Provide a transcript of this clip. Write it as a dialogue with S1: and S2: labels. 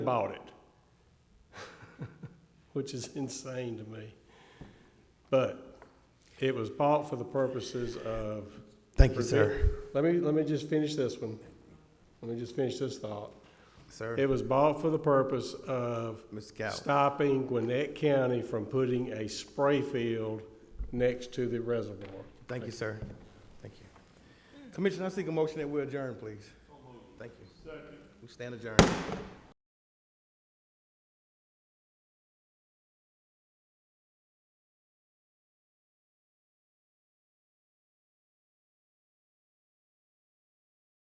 S1: bought it, which is insane to me. But it was bought for the purposes of.
S2: Thank you, sir.
S1: Let me, let me just finish this one. Let me just finish this thought. It
S2: Sir,
S1: was bought for the purpose of
S2: Ms. Scout,
S1: stopping Gwinnett County from putting a spray field next to the reservoir.
S2: thank you, sir. Thank you. Commissioner, I seek a motion that we adjourn, please. Thank you. We stand adjourned.